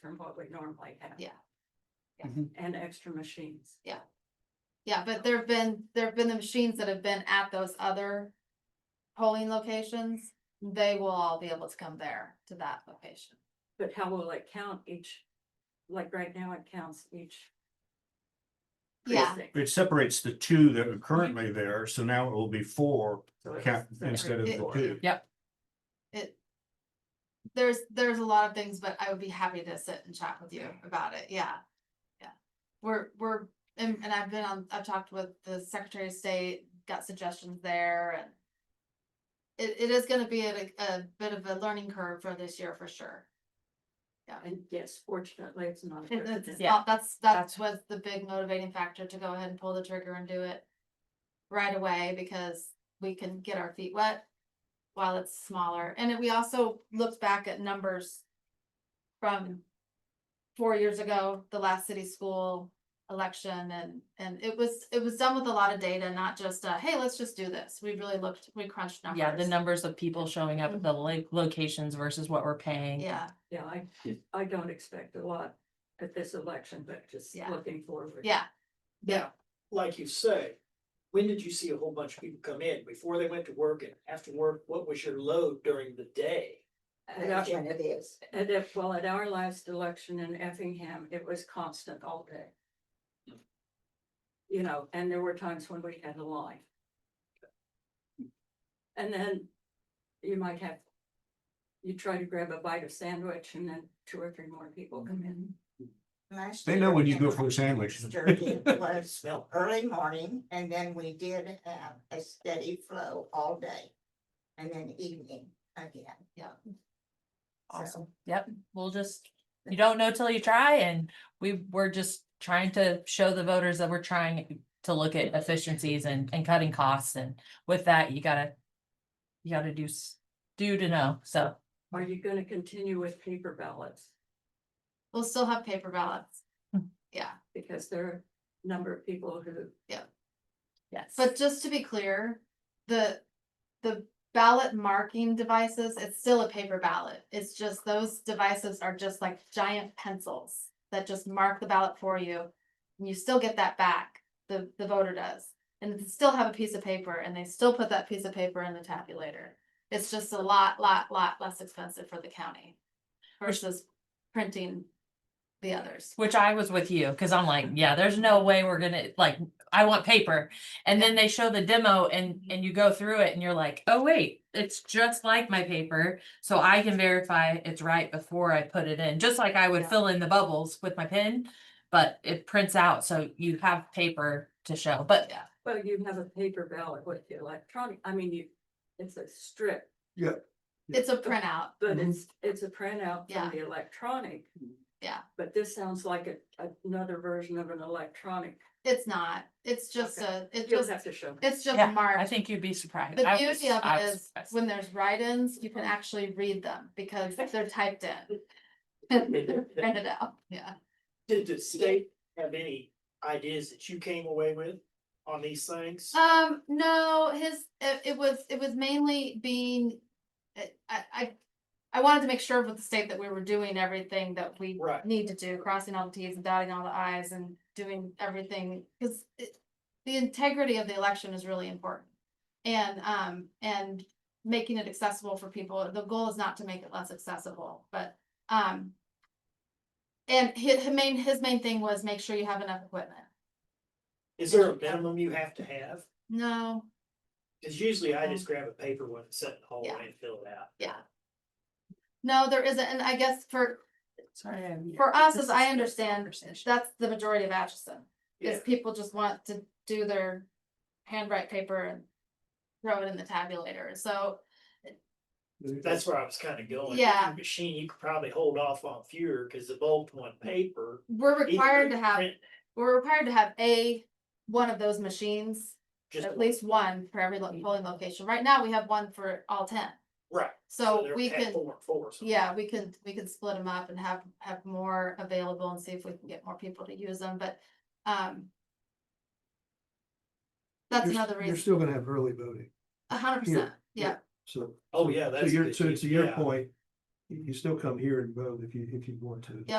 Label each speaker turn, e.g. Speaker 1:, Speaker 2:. Speaker 1: from what we normally have.
Speaker 2: Yeah.
Speaker 3: Yeah.
Speaker 1: And extra machines.
Speaker 2: Yeah, but there've been, there've been the machines that have been at those other polling locations. They will all be able to come there to that location.
Speaker 1: But how will it count each, like right now, it counts each
Speaker 2: Yeah,
Speaker 1: precinct.
Speaker 4: It separates the two that are currently there, so now it will be four
Speaker 1: So it's-
Speaker 4: cap instead of the two.
Speaker 2: it. There's, there's a lot of things, but I would be happy to sit and chat with you about it. Yeah. Yeah. We're, we're, and, and I've been on, I've talked with the Secretary of State, got suggestions there and. It, it is gonna be a, a bit of a learning curve for this year for sure.
Speaker 1: And yes, fortunately, it's not. a
Speaker 2: It- it's-
Speaker 1: precedent.
Speaker 2: it's not- That's, that
Speaker 3: That's-
Speaker 2: was the big motivating factor to go ahead and pull the trigger and do it right away because we can get our feet wet while it's smaller. And then we also looked back at numbers from four years ago, the last city school election and, and it was, it was done with a lot of data, not just uh hey, let's just do this. We really looked, we crunched numbers.
Speaker 3: Yeah, the numbers of people showing up at the lo- locations versus what we're paying.
Speaker 2: Yeah,
Speaker 1: Yeah, I, I don't expect a lot at this election, but just
Speaker 2: Yeah.
Speaker 1: looking forward.
Speaker 2: yeah,
Speaker 5: Now, like you say, when did you see a whole bunch of people come in? Before they went to work and after work, what was your load during the day?
Speaker 1: At our- at it- well, at our last election in Effingham, it was constant all day. You know, and there were times when we had a line. And then you might have, you try to grab a bite of sandwich and then two or three more people come in.
Speaker 6: Last
Speaker 4: They know
Speaker 6: year,
Speaker 4: when you
Speaker 6: it
Speaker 4: go
Speaker 6: was
Speaker 4: for a sandwich.
Speaker 6: sturdy, it was early morning, and then we did have a steady flow all day. And then evening again.
Speaker 2: Yeah.
Speaker 3: Awesome. Yep, we'll just, you don't know till you try and we, we're just trying to show the voters that we're trying to look at efficiencies and, and cutting costs and with that, you gotta, you gotta do, s- do to know, so.
Speaker 1: Are you gonna continue with paper ballots?
Speaker 2: we'll still have paper ballots.
Speaker 3: Hmm.
Speaker 2: Yeah.
Speaker 1: Because there are a number of people who,
Speaker 3: Yes.
Speaker 2: But just to be clear, the, the ballot marking devices, it's still a paper ballot. It's just those devices are just like giant pencils that just mark the ballot for you. And you still get that back, the, the voter does. And they still have a piece of paper and they still put that piece of paper in the tabulator. It's just a lot, lot, lot less expensive for the county versus printing the others.
Speaker 3: which I was with you, cause I'm like, yeah, there's no way we're gonna, like, I want paper. And then they show the demo and,
Speaker 2: Mm-hmm.
Speaker 3: and you go through it and you're like, oh, wait, it's just like my paper. So I can verify it's right before I put it in, just like I would
Speaker 2: Yeah.
Speaker 3: fill in the bubbles with my pen. But it prints out, so you have paper to show, but
Speaker 2: Yeah.
Speaker 1: well, you have a paper ballot with the electronic, I mean, you, it's a strip.
Speaker 2: It's a printout.
Speaker 1: But
Speaker 3: Mhm.
Speaker 1: it's, it's a printout
Speaker 2: Mm-hmm. Yeah.
Speaker 1: from the electronic.
Speaker 2: Yeah.
Speaker 1: But this sounds like a, another version of an electronic.
Speaker 2: It's not. It's just a, it's
Speaker 1: You'll
Speaker 2: just,
Speaker 1: have to show. me.
Speaker 2: it's just
Speaker 3: Yeah,
Speaker 2: marked.
Speaker 3: I think you'd be surprised.
Speaker 2: The
Speaker 3: I was-
Speaker 2: beauty of
Speaker 3: I
Speaker 2: it
Speaker 3: was
Speaker 2: is
Speaker 3: surprised.
Speaker 2: when there's write-ins, you can actually read them because they're typed in. Print
Speaker 5: Did
Speaker 2: it out, yeah.
Speaker 5: the state have any ideas that you came away with on these things?
Speaker 2: Um, no, his, it, it was, it was mainly being, I, I, I. I wanted to make sure with the state that we were doing everything that we
Speaker 5: Right.
Speaker 2: need to do, crossing all the Ts and dotting all the Is and doing everything, cause it. The integrity of the election is really important. And, um, and making it accessible for people. The goal is not to make it less accessible, but, um. And his, his main, his main thing was make sure you have enough equipment.
Speaker 5: Is there a minimum you have to have?
Speaker 2: No,
Speaker 5: Cause usually I just grab a paper one and set it in the
Speaker 2: Yeah.
Speaker 5: hallway and fill it out.
Speaker 2: yeah. No, there isn't, and I guess for,
Speaker 3: Sorry, I'm-
Speaker 2: for us,
Speaker 3: This
Speaker 2: as
Speaker 3: is
Speaker 2: I
Speaker 3: just
Speaker 2: understand,
Speaker 3: conversation.
Speaker 2: that's the majority of Atchison.
Speaker 5: Yeah,
Speaker 2: Is people just want to do their handwrite paper and throw it in the tabulator, so,
Speaker 5: that's where I was kinda going.
Speaker 2: Yeah.
Speaker 5: Machine, you could probably hold off on fewer, cause the bulk one paper.
Speaker 2: we're
Speaker 5: equally
Speaker 2: required to have,
Speaker 5: print
Speaker 2: we're required to have a, one of those machines.
Speaker 5: Just, Mm-hmm.
Speaker 2: At least one for every lo- polling location. Right now, we have one for all ten.
Speaker 5: right.
Speaker 2: So
Speaker 5: they're
Speaker 2: we
Speaker 5: at
Speaker 2: can,
Speaker 5: Four, and four. or something.
Speaker 2: yeah, we can, we can split them up and have, have more available and see if we can get more people to use them, but, um. That's
Speaker 7: You're s-
Speaker 2: another
Speaker 7: You're
Speaker 2: reason,
Speaker 7: still gonna have early voting,
Speaker 2: a hundred percent, yeah,
Speaker 7: so.
Speaker 5: Oh, yeah,
Speaker 7: so
Speaker 5: that's.
Speaker 7: your-
Speaker 5: good,
Speaker 7: So to your
Speaker 5: yeah.
Speaker 7: point, you you still come here and vote if you, if you want to.
Speaker 2: Yeah,